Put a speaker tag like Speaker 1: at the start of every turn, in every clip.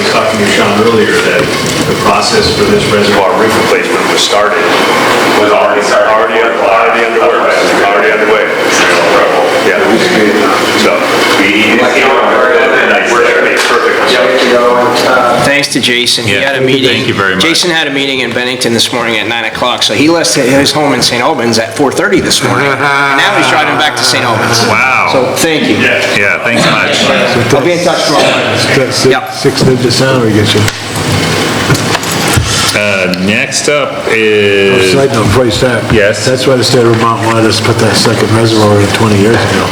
Speaker 1: Sean earlier that the process for this reservoir roof replacement was started.
Speaker 2: Was already started.
Speaker 1: Already, already underway, already underway. Yeah. So. We,
Speaker 2: Like, you know, very good.
Speaker 1: nice there, it's perfect.
Speaker 3: Thanks to Jason, he had a
Speaker 4: Yeah,
Speaker 3: meeting.
Speaker 4: thank you very much.
Speaker 3: Jason had a meeting in Bennington this morning at 9 o'clock, so he left his home in St. Albans at 4:30 this morning. And Now he's driving back to St. Albans.
Speaker 4: Wow.
Speaker 3: So, thank you.
Speaker 4: Yeah, thanks much.
Speaker 3: I'll be in touch tomorrow.
Speaker 5: That's
Speaker 3: Yep.
Speaker 5: the sixth of December, I guess.
Speaker 4: Uh, Next up is,
Speaker 5: Side note, before you start.
Speaker 4: Yes.
Speaker 5: That's why the state of Vermont wanted us to put that second reservoir in 20 years ago.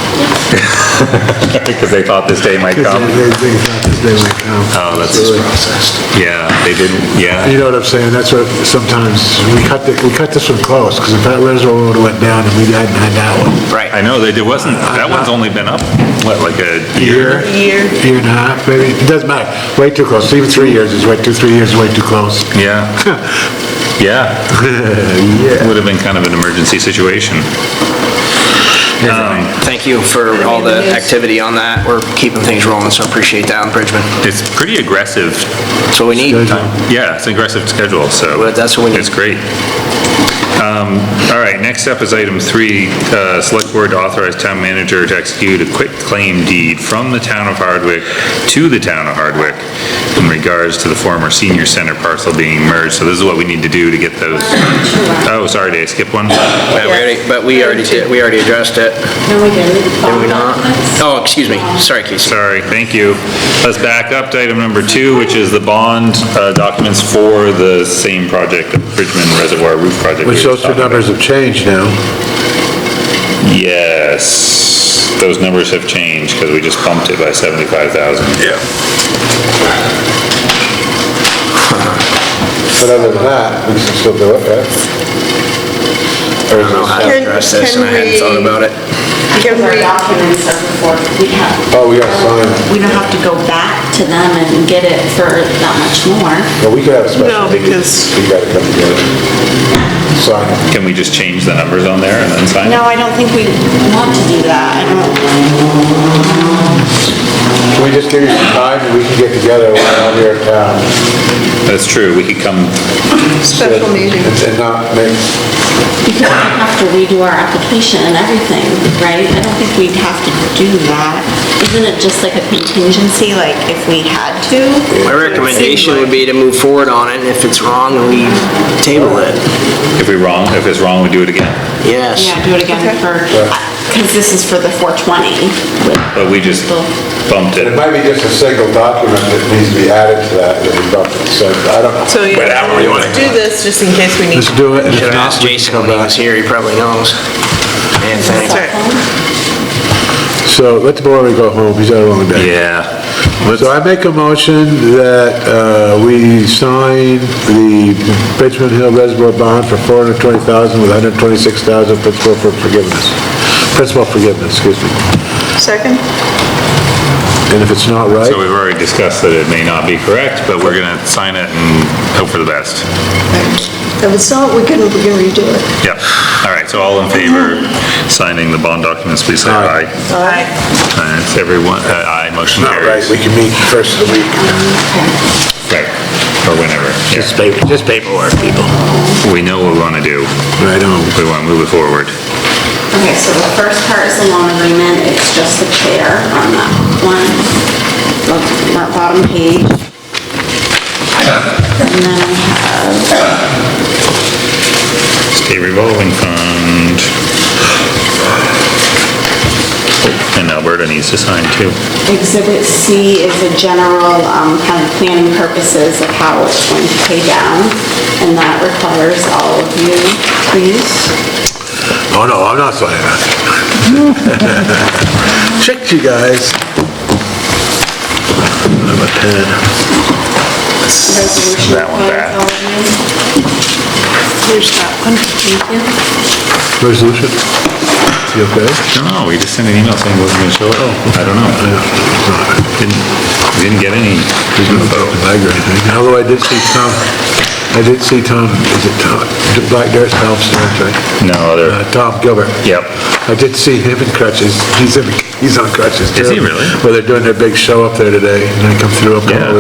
Speaker 4: because they thought this day might
Speaker 5: Because
Speaker 4: come.
Speaker 5: they they thought this day would come.
Speaker 4: Oh, that's-
Speaker 5: It's really processed.
Speaker 4: Yeah, they didn't, yeah.
Speaker 5: You know what I'm saying? That's what sometimes, we cut, the- we cut this one close, because if that reservoir would've went down and we hadn't had that one.
Speaker 3: Right.
Speaker 4: I know, they, it wasn't, that one's only been up, what, like a year?
Speaker 5: Year. Year and a half, maybe. It doesn't matter. Way too close. Even three years is way, two, three years is way too close.
Speaker 4: Yeah. Yeah. Would have been kind of an emergency situation. Um,
Speaker 3: Thank you for all the activity on that. We're keeping things rolling, so appreciate that in Bridgman.
Speaker 4: It's pretty aggressive.
Speaker 3: So we need,
Speaker 4: Yeah, it's an aggressive schedule, so.
Speaker 3: Well, that's what we need.
Speaker 4: It's great. Um, All right, next up is item three, uh, select board to authorize town manager to execute a quick claim deed from the town of Hardwick to the town of Hardwick in regards to the former senior center parcel being merged. So this is what we need to do to get those. Oh, sorry, did I skip one?
Speaker 3: but we already- but we already, did- we already addressed it.
Speaker 6: No, we didn't.
Speaker 3: Did we not? Oh, excuse me. Sorry, Casey.
Speaker 4: Sorry, thank you. Let's back up to item number two, which is the bond uh, documents for the same project, the Bridgman Reservoir Roof Project. we
Speaker 5: Which
Speaker 4: were
Speaker 5: those two
Speaker 4: talking about.
Speaker 5: numbers have changed now.
Speaker 4: Yes, those numbers have changed because we just bumped it by 75,000. Yeah.
Speaker 5: But other than that, we can still do it, right? Or is
Speaker 3: I
Speaker 5: this-
Speaker 3: addressed this and I hadn't thought about it.
Speaker 6: Give
Speaker 7: Our
Speaker 6: her-
Speaker 7: documents are before, we have,
Speaker 5: Oh, we got signed.
Speaker 7: we don't have to go back to them and get it for that much more.
Speaker 5: Well, we could have a special
Speaker 6: No,
Speaker 5: meeting.
Speaker 6: because-
Speaker 5: We gotta come together. Sign it.
Speaker 4: Can we just change the numbers on there and then sign?
Speaker 7: No, I don't think we want to do that. I don't,
Speaker 5: Can we just give you some time, and we can get together when I'm here in town?
Speaker 4: That's true, we could come,
Speaker 6: Special meeting.
Speaker 5: And not make,
Speaker 7: because we have to redo our application and everything, right? I don't think we'd have to do that. Isn't it just like a contingency, like if we had to?
Speaker 3: My recommendation would be to move forward on it, and if it's wrong, we table it.
Speaker 4: if we're wrong, if it's wrong, we do it again.
Speaker 3: Yes.
Speaker 7: Yeah, do it again for, because this is for the 420 with
Speaker 4: But we just bumped
Speaker 5: it
Speaker 4: it.
Speaker 5: might be just a single document that needs to be added to that, that we don't, so, I don't know.
Speaker 6: So yeah,
Speaker 4: Whatever we wanna
Speaker 6: let's do this just in case we need.
Speaker 5: Let's do it, and if
Speaker 3: Should have
Speaker 5: not,
Speaker 3: asked
Speaker 5: we can
Speaker 3: Jason
Speaker 5: come
Speaker 3: when he
Speaker 5: back.
Speaker 3: was here, he probably knows. Man, thanks.
Speaker 6: That's right.
Speaker 5: So let the board go home, he's had a long day.
Speaker 4: Yeah. Let's,
Speaker 5: So I make a motion that uh, we sign the Bridgman Hill Reservoir Bond for 420000 with 126000 principal for forgiveness. Principal forgiveness, excuse me.
Speaker 6: Second?
Speaker 5: And if it's not right,
Speaker 4: so we've already discussed that it may not be correct, but we're gonna sign it and hope for the best.
Speaker 6: If it's not, we can, we can redo it.
Speaker 4: Yeah. All right, so all in favor signing the bond documents, please say aye.
Speaker 6: All right.
Speaker 4: Uh, It's everyone, uh, aye, motion
Speaker 5: not right,
Speaker 4: carries.
Speaker 5: we can meet first of the week.
Speaker 4: Right, or whenever. yeah.
Speaker 5: Just paper- just paperwork, people.
Speaker 4: We know what we wanna do.
Speaker 5: Right on.
Speaker 4: We wanna move it forward.
Speaker 7: Okay, so the first part is the loan agreement, it's just the chair on that one, look, that bottom page. And then I have,
Speaker 4: State revolving fund. And Alberta needs to sign too.
Speaker 7: exhibit C is a general, um, kind of planning purposes of how it's going to pay down, and that requires all of you, please.
Speaker 5: Oh, no, I'm not signing that. Tricked you guys. I'm a pen.
Speaker 7: Resolution
Speaker 4: That one
Speaker 7: requires
Speaker 4: back.
Speaker 7: all of you.
Speaker 6: Here's that one.
Speaker 5: Resolution? You okay?
Speaker 4: No, we just sent an email saying it wasn't gonna show up. I don't know. Didn't, didn't get any.
Speaker 5: Bag or anything. Although I did see Tom, I did see Tom, is it Tom, Black Dearest Helps, that's right.
Speaker 4: No other.
Speaker 5: Uh, Tom Gilbert.
Speaker 4: Yep.
Speaker 5: I did see him in crutches. He's in, he's on crutches too.
Speaker 4: Is he really?
Speaker 5: Well, they're doing their big show up there today, and I come through, I'm
Speaker 4: Yeah.
Speaker 5: going